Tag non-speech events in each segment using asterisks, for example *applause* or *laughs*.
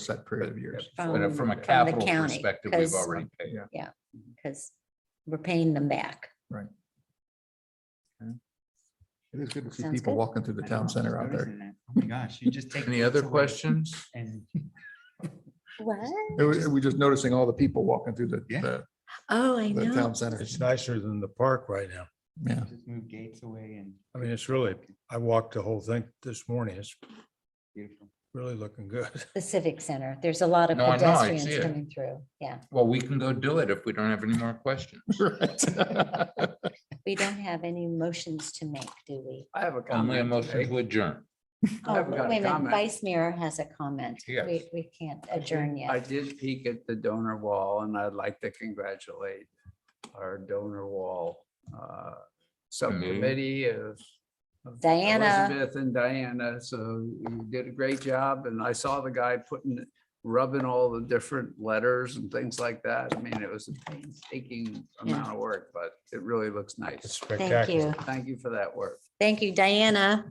set period of years. But uh, from, from a the capital county, perspective, we've 'cause- already paid. because we're paying them back. It is good to see Sounds people good. walking through the I town know, center I out was there. noticing that. Oh my gosh, you just take. Any the other kids away questions? And What? It was- We're just noticing all the people walking through the, Yeah. the- Oh, I the know. town center. It's nicer than the park right now. Yeah. just move gates away and I mean, it's really, I walked the whole thing this morning. It's beautiful. really looking good. *laughs* The civic center. There's a lot of No, I know, I see pedestrians it. coming through. Yeah, Well, we can go do it if we don't have any more questions. Right. we don't have any motions to make, do we? I have a Only a comment. motion today. to adjourn. *laughs* I Oh, haven't got a wait a minute, comment. Vice Mayor has a comment. Yes. We, we can't adjourn I yet. did peek at the donor wall and I'd like to congratulate our donor wall uh, subcommittee of of Diana. Elizabeth and Diana. So you did a great job and I saw the guy putting, rubbing all the different letters and things like that. I mean, it was a painstaking amount of work, but it really looks It's nice. Thank spectacular. you. Thank you for that work. Thank you, Diana.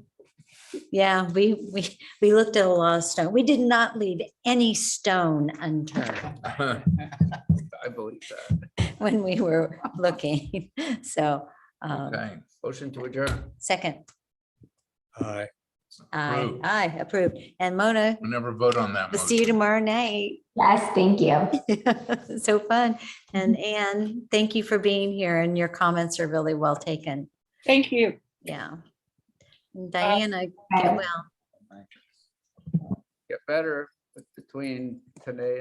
Yeah, we, we, we looked at a lot of stone. We did not leave any stone *laughs* unturned I believe that. when we were looking. *laughs* So, um, Okay. Motion to adjourn. second, Uh, aye, Approved. aye, approved. And Mona, We'll never vote on that. We'll see you motion. tomorrow night. *laughs* Yes, thank you. So fun. And Mm-hmm. Anne, thank you for being here and your comments are really well taken. Thank you. Uh, Yeah. Diana, get Bye. well. get better between today